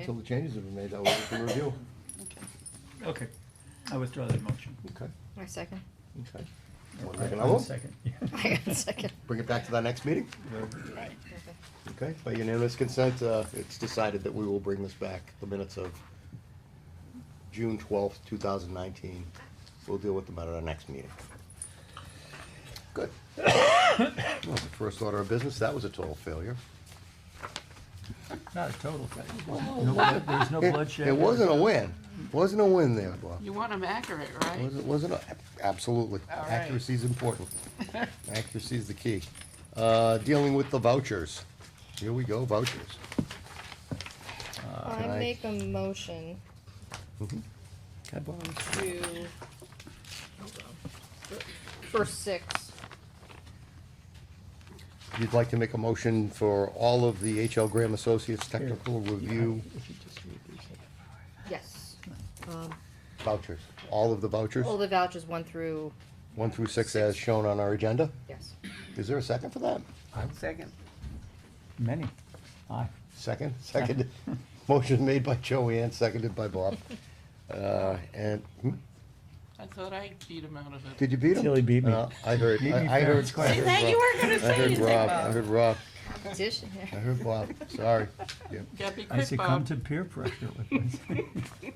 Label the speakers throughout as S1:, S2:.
S1: Until the changes have been made, that way we can review.
S2: Okay, I withdraw that motion.
S1: Okay,
S3: My second.
S1: okay.
S2: Or
S1: Wanna make
S2: I-
S1: another one?
S2: Second, yeah.
S3: I got a second.
S1: Bring it back to that next meeting. Okay, by unanimous consent, uh, it's decided that we will bring this back, the minutes of June twelfth, two thousand nineteen. We'll deal with them at our next meeting. Good. Well, the First order of business, that was a total failure.
S2: Not a total failure. No blood- There was no
S1: It-
S2: bloodshed.
S1: It wasn't a win. Wasn't a win there, Bob.
S4: You want them accurate, right?
S1: Wasn't, wasn't, a- absolutely.
S4: All right.
S1: Accuracy is important. Accuracy is the key. Uh, dealing with the vouchers. Here we go, vouchers.
S3: I
S1: Aye.
S3: make a motion
S1: Hi, Bob.
S3: to, hold on, for six.
S1: You'd like to make a motion for all of the H.L. Graham Associates Technical Review
S2: If you just read these.
S3: Yes. Um,
S1: vouchers, all of the vouchers,
S3: All the vouchers, one through,
S1: one through six as shown on our agenda?
S3: yes.
S1: Is there a second for that?
S4: Second.
S2: Many. Aye.
S1: Second, second, motion made by Joanne, seconded by Bob. Uh, and, hmm,
S4: I thought I beat him out of it.
S1: did you beat him?
S2: Tilly beat me.
S1: Uh, I heard,
S2: Beat me
S1: I I
S2: fair and
S1: heard.
S2: square.
S1: I heard Rob.
S4: gonna
S1: I heard Rob, I heard Rob,
S3: Competition here.
S1: I heard Bob, sorry. Yep.
S4: Yeah, be
S2: I
S4: quick,
S2: succumb
S4: Bob.
S2: to peer pressure. with this.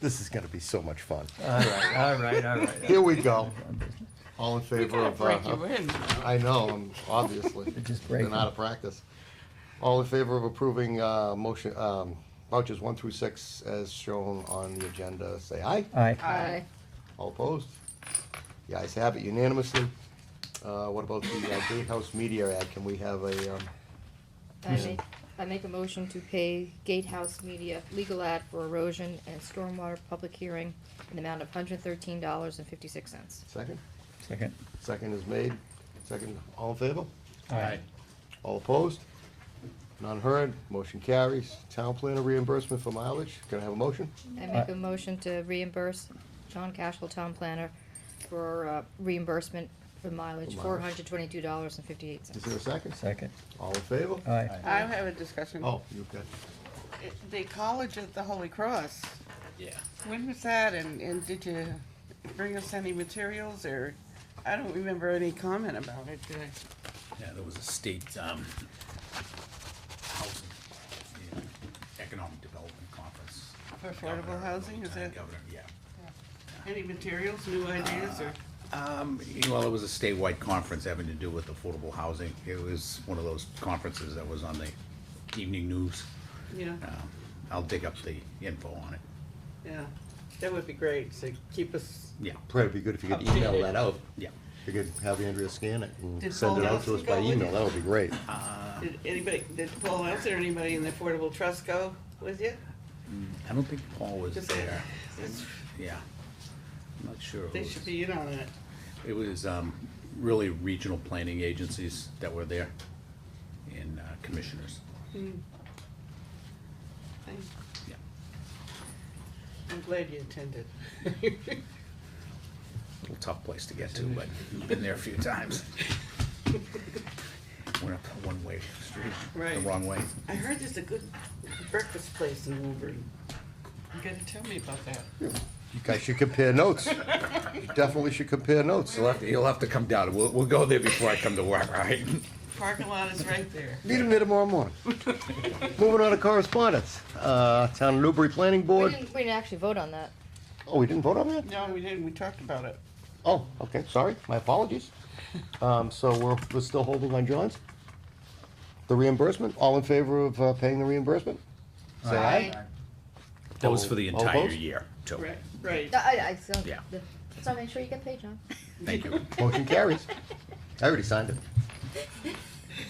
S1: This is gonna be so much fun.
S2: All right, all right, all right.
S1: Here we go. All in
S4: We
S1: favor
S4: gotta
S1: of,
S4: break
S1: uh,
S4: you in.
S1: I know, um, obviously.
S2: Just break
S1: Been out
S2: them.
S1: of practice. All in favor of approving uh, motion, um, vouchers one through six as shown on the agenda, say aye.
S2: Aye.
S3: Aye.
S1: All opposed? The ayes have it unanimously. Uh, What about the uh, Gatehouse Media ad? Can we have a, um,
S3: I make, I make a motion to pay Gatehouse Media legal ad for erosion and stormwater public hearing in the amount of hundred thirteen dollars and fifty-six cents.
S1: second?
S2: Second.
S1: Second is made. Second, all in favor?
S2: Aye.
S1: All opposed? None heard. Motion carries. Town planner reimbursement for mileage. Can I have a motion?
S3: I make a motion to reimburse John Cashel, town planner, for uh, reimbursement for
S1: For
S3: mileage,
S1: mileage.
S3: four hundred twenty-two dollars and fifty-eight
S1: Is there a
S3: cents.
S1: second?
S2: Second.
S1: All in favor?
S2: Aye.
S4: I have a discussion.
S1: Oh, you've got,
S4: It- The college at the Holy Cross,
S5: Yeah.
S4: when was that and, and did you bring us any materials or? I don't remember any comment about it. did I?
S5: Yeah, there was a state, um, housing, yeah, economic development conference.
S4: For affordable
S5: Governor-
S4: housing, is
S5: Lieutenant
S4: that,
S5: Governor, yeah.
S4: any materials, new ideas or?
S5: Um, you- well, it was a statewide conference having to do with affordable housing. It was one of those conferences that was on the evening news.
S4: Yeah,
S5: Um, I'll dig up the info on it.
S4: yeah. That would be great to keep us.
S5: Yeah,
S1: probably be good if you could email that out.
S5: yeah.
S1: If Oh, you could have Andrea scan it and
S4: Did
S1: send it
S4: Paul
S1: out to us by
S4: Nelson go with
S1: email,
S4: you?
S1: that would be great.
S4: Did anybody, did Paul Nelson or anybody in the Affordable Trust go with you?
S5: I don't think Paul was
S4: Just-
S5: there.
S4: It's-
S5: Yeah. I'm not sure. who
S4: They
S5: was-
S4: should be in on it.
S5: It was um, really regional planning agencies that were there and uh, commissioners.
S4: I-
S5: Yeah.
S4: I'm glad you attended.
S5: Little tough place to get to, but been there a few times. Went up a one-way street, the
S4: Right.
S5: wrong way.
S4: I heard there's a good breakfast place in Woburn. You gotta tell me about that.
S1: You guys should compare notes. You Definitely should compare notes.
S5: You'll have to, you'll have to come down. We'll, we'll go there before I come to work, all right?
S4: Parking lot is right there.
S1: Meet him there tomorrow morning. Moving on to correspondence. Uh, Town of Newbury Planning
S3: We
S1: Board.
S3: didn't, we didn't actually vote on that.
S1: Oh, we didn't vote on that?
S4: No, we didn't, we talked about it.
S1: Oh, okay, sorry, my apologies. Um, so we're, we're still holding on John's? The reimbursement, all in favor of uh, paying the reimbursement? Say aye.
S5: That was for the
S1: All
S5: entire
S1: opposed?
S5: year, too.
S4: Right, right.
S3: No, I, I, so,
S5: Yeah.
S3: so make sure you get paid, John.
S5: Thank you.
S1: Motion carries. I already signed it.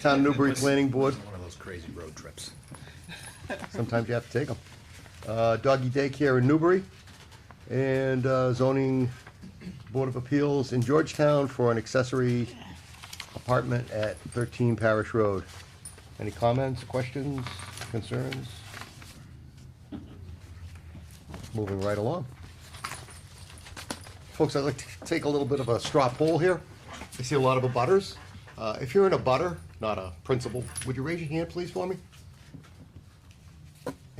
S1: Town of Newbury Planning Board,
S5: One of those crazy road trips.
S1: sometimes you have to take them. Uh, doggy daycare in Newbury, and uh, zoning Board of Appeals in Georgetown for an accessory apartment at thirteen Parish Road. Any comments, questions, concerns? Moving right along. Folks, I'd like to take a little bit of a straw poll here. I see a lot of abutters. Uh, if you're in a butter, not a principal, would you raise your hand, please, for me?